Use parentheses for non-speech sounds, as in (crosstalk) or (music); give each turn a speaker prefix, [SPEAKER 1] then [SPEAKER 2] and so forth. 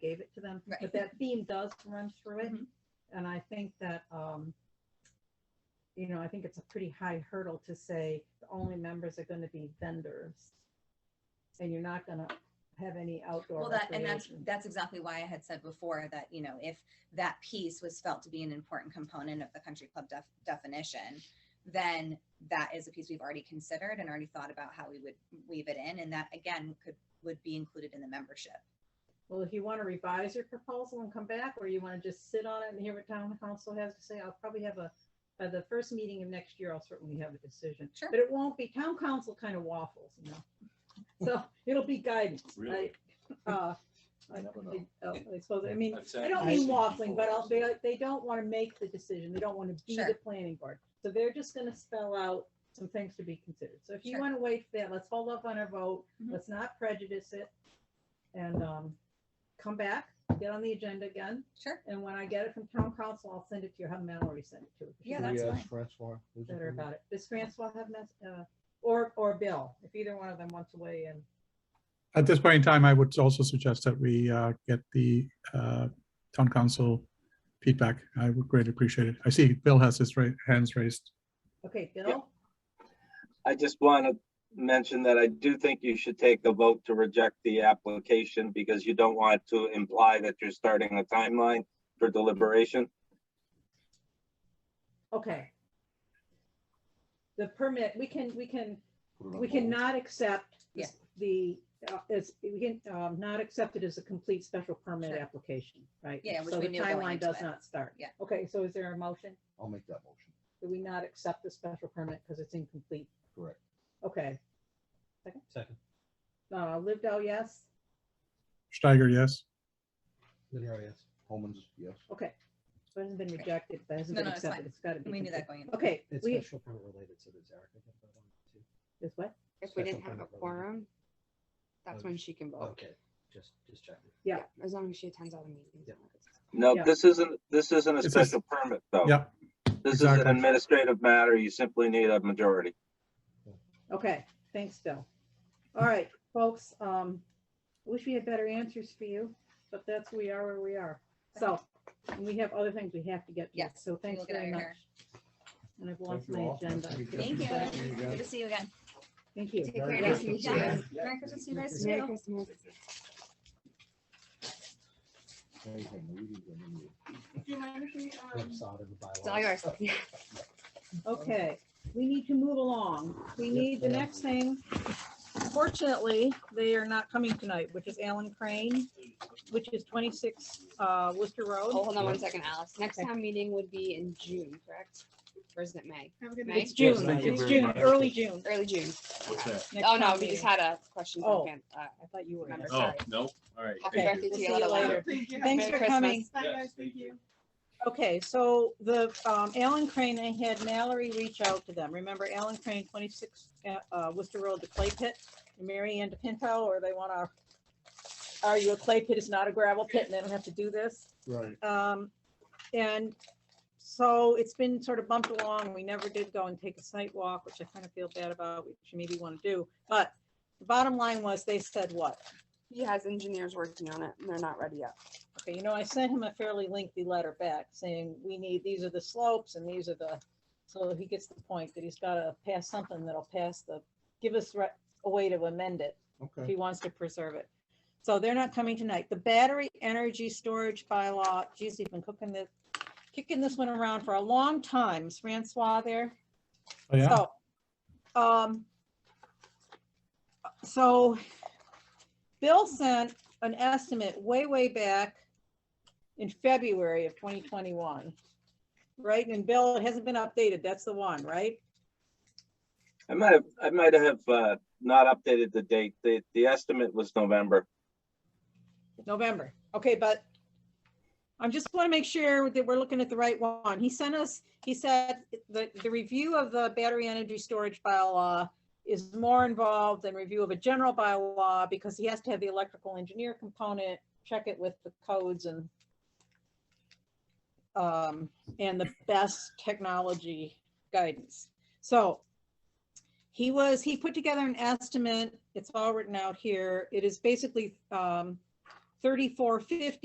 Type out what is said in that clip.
[SPEAKER 1] them,
[SPEAKER 2] Right.
[SPEAKER 1] but that theme does run through it.
[SPEAKER 2] Mhm.
[SPEAKER 1] And I think that, um, you know, I think it's a pretty high hurdle to say the only members are gonna be vendors. And you're not gonna have any outdoor
[SPEAKER 2] Well, that, and that's,
[SPEAKER 1] recreation.
[SPEAKER 2] that's exactly why I had said before that, you know, if that piece was felt to be an important component of the country club def- definition, then that is a piece we've already considered and already thought about how we would weave it in. And that again, could, would be included in the membership.
[SPEAKER 1] Well, if you wanna revise your proposal and come back, or you wanna just sit on it and hear what town council has to say, I'll probably have a, by the first meeting of next year, I'll certainly have a decision.
[SPEAKER 2] Sure.
[SPEAKER 1] But it won't be, town council kind of waffles, you know? So (laughs) it'll be guidance. I-
[SPEAKER 3] Really?
[SPEAKER 1] Uh, I
[SPEAKER 3] (laughs) I never
[SPEAKER 1] I
[SPEAKER 3] know.
[SPEAKER 1] oh, I suppose, I mean,
[SPEAKER 3] I've said
[SPEAKER 1] I don't
[SPEAKER 3] this
[SPEAKER 1] mean waffling, but I'll-
[SPEAKER 3] before.
[SPEAKER 1] they, they don't want to make the decision. They don't want to be
[SPEAKER 2] Sure.
[SPEAKER 1] the planning board. So they're just going to spell out some things to be considered. So if you
[SPEAKER 2] Sure.
[SPEAKER 1] want to wait for that, let's hold up on our vote.
[SPEAKER 2] Mhm.
[SPEAKER 1] Let's not prejudice it. And um, come back, get on the agenda again.
[SPEAKER 2] Sure.
[SPEAKER 1] And when I get it from town council, I'll send it to you. Have Mel already sent it to you.
[SPEAKER 2] Yeah,
[SPEAKER 1] She's
[SPEAKER 2] that's
[SPEAKER 4] Yes,
[SPEAKER 2] fine.
[SPEAKER 4] Francois. is it
[SPEAKER 1] Better
[SPEAKER 4] you?
[SPEAKER 1] about it. Does Francois have, mess- uh, or, or Bill, if either one of them wants to weigh in.
[SPEAKER 5] At this point in time, I would also suggest that we uh, get the uh, town council feedback. I would greatly appreciate it. I see Bill has his ra- hands raised.
[SPEAKER 1] Okay, Bill?
[SPEAKER 6] I just want to mention that I do think you should take the vote to reject the application because you don't want to imply that you're starting a timeline for deliberation.
[SPEAKER 1] Okay. The permit, we can, we can
[SPEAKER 3] Put it on
[SPEAKER 1] We
[SPEAKER 3] hold.
[SPEAKER 1] cannot accept
[SPEAKER 2] Yeah.
[SPEAKER 1] the, uh, it's, we can, um, not accept it as a complete special permit
[SPEAKER 2] Sure.
[SPEAKER 1] application, right?
[SPEAKER 2] Yeah, which
[SPEAKER 1] So
[SPEAKER 2] we
[SPEAKER 1] the
[SPEAKER 2] knew going
[SPEAKER 1] timeline
[SPEAKER 2] into
[SPEAKER 1] does
[SPEAKER 2] it.
[SPEAKER 1] not start.
[SPEAKER 2] Yeah.
[SPEAKER 1] Okay, so is there a motion?
[SPEAKER 3] I'll make that motion.
[SPEAKER 1] Do we not accept the special permit because it's incomplete?
[SPEAKER 3] Correct.
[SPEAKER 1] Okay,
[SPEAKER 7] Second.
[SPEAKER 1] uh, Livdo, yes?
[SPEAKER 5] Steiger, yes.
[SPEAKER 7] Minio, yes.
[SPEAKER 3] Holman's, yes.
[SPEAKER 1] Okay. So It hasn't been
[SPEAKER 2] Great.
[SPEAKER 1] rejected, but it hasn't
[SPEAKER 2] No,
[SPEAKER 1] been
[SPEAKER 2] no, it's
[SPEAKER 1] accepted.
[SPEAKER 2] fine.
[SPEAKER 1] It's gotta be.
[SPEAKER 2] We knew
[SPEAKER 1] complete.
[SPEAKER 2] that going in.
[SPEAKER 1] Okay,
[SPEAKER 7] It's
[SPEAKER 1] we,
[SPEAKER 7] special permit related, so there's Erica. can vote on it, too.
[SPEAKER 1] is what?
[SPEAKER 8] If we
[SPEAKER 7] Special
[SPEAKER 8] didn't have a
[SPEAKER 7] permit related.
[SPEAKER 8] quorum, that's when she can vote.
[SPEAKER 7] Okay, just, just checking.
[SPEAKER 1] Yeah.
[SPEAKER 8] As long as she attends all the meetings. and all that stuff.
[SPEAKER 6] No,
[SPEAKER 1] Yeah.
[SPEAKER 6] this isn't, this isn't a
[SPEAKER 5] It's a-
[SPEAKER 6] special permit, though.
[SPEAKER 5] Yeah,
[SPEAKER 6] This is an
[SPEAKER 5] exactly.
[SPEAKER 6] administrative matter. You simply need a majority.
[SPEAKER 1] Okay, thanks, Bill. All right, folks, um, wish we had better answers for you, but that's, we are where we are. So, and we have other things we have to get. to,
[SPEAKER 2] Yes,
[SPEAKER 1] So thanks
[SPEAKER 2] we'll get out
[SPEAKER 1] very
[SPEAKER 2] of
[SPEAKER 1] much.
[SPEAKER 2] here.
[SPEAKER 1] And I've lost
[SPEAKER 4] you
[SPEAKER 1] my
[SPEAKER 4] all.
[SPEAKER 1] agenda.
[SPEAKER 2] Thank you.
[SPEAKER 1] Thank you.
[SPEAKER 2] Good to see you again.
[SPEAKER 1] Thank you.
[SPEAKER 8] Take care,
[SPEAKER 1] Yeah.
[SPEAKER 8] nice to meet you.
[SPEAKER 2] Yeah. Merry Christmas to you guys
[SPEAKER 8] Merry
[SPEAKER 2] too.
[SPEAKER 8] Christmas.
[SPEAKER 3] Hey, hey, we didn't get any of it.
[SPEAKER 1] um,
[SPEAKER 7] Whipsaw to the bylaws.
[SPEAKER 8] It's all yours. Yeah.
[SPEAKER 7] Oh.
[SPEAKER 1] Okay, we need to move along. We
[SPEAKER 7] Yep.
[SPEAKER 1] need the next thing. Fortunately, they are not coming tonight, which is Alan Crane, which is twenty-six, uh, Worcester
[SPEAKER 8] Oh,
[SPEAKER 1] Road.
[SPEAKER 8] (laughs) Hold on one second, Alice. Next
[SPEAKER 1] Okay.
[SPEAKER 8] town meeting would be in June, correct? Or is it May? May,
[SPEAKER 1] It's
[SPEAKER 3] Yes,
[SPEAKER 1] June,
[SPEAKER 3] thank you
[SPEAKER 1] it's
[SPEAKER 3] very
[SPEAKER 1] June,
[SPEAKER 3] much.
[SPEAKER 1] early June.
[SPEAKER 8] early June.
[SPEAKER 3] What's that?
[SPEAKER 1] next
[SPEAKER 8] Oh, no,
[SPEAKER 1] town
[SPEAKER 8] we just
[SPEAKER 1] meeting.
[SPEAKER 8] had a question
[SPEAKER 1] Oh.
[SPEAKER 8] from Ken. Uh,
[SPEAKER 1] I thought you were.
[SPEAKER 8] Remember,
[SPEAKER 1] gonna-
[SPEAKER 3] Oh,
[SPEAKER 8] sorry.
[SPEAKER 3] no, all right.
[SPEAKER 8] Happy
[SPEAKER 1] Okay,
[SPEAKER 3] thank you.
[SPEAKER 8] birthday
[SPEAKER 1] we'll
[SPEAKER 8] to
[SPEAKER 1] see
[SPEAKER 8] you.
[SPEAKER 1] you
[SPEAKER 8] Lila.
[SPEAKER 1] later.
[SPEAKER 9] Thank you.
[SPEAKER 1] Thanks
[SPEAKER 8] Merry
[SPEAKER 1] for coming.
[SPEAKER 8] Christmas.
[SPEAKER 3] Yes,
[SPEAKER 9] Thank you.
[SPEAKER 1] Okay, so the, um, Alan Crane, I had Mallory reach out to them. Remember Alan Crane, twenty-six, uh, uh, Worcester Road, the clay pit? And Mary Ann DePinto, or they wanna, are you a clay pit? It's not a gravel pit and they don't have to do this?
[SPEAKER 4] Right.
[SPEAKER 1] Um, and so it's been sort of bumped along. We never did go and take a site walk, which I kind of feel bad about, which you maybe wanna do. But the bottom line was they said what?
[SPEAKER 8] He has engineers working on it and they're not ready yet.
[SPEAKER 1] Okay, you know, I sent him a fairly lengthy letter back saying, we need, these are the slopes and these are the, so he gets the point that he's gotta pass something that'll pass the, give us re- a way to amend it if
[SPEAKER 4] Okay.
[SPEAKER 1] he wants to preserve it. So they're not coming tonight. The battery energy storage bylaw, geez, they've been cooking this, kicking this one around for a long time. Is Francois there?
[SPEAKER 5] Oh, yeah.
[SPEAKER 1] So, um, so Bill sent an estimate way, way back in February of 2021. Right? And Bill, it hasn't been updated. That's the one, right?
[SPEAKER 6] I might have, I might have, uh, not updated the date. The, the estimate was November.
[SPEAKER 1] November. Okay, but I just want to make sure that we're looking at the right one. He sent us, he said, the, the review of the battery energy storage bylaw is more involved than review of a general bylaw because he has to have the electrical engineer component, check it with the codes and um, and the best technology guidance. So he was, he put together an estimate. It's all written out here. It is basically, um, 3450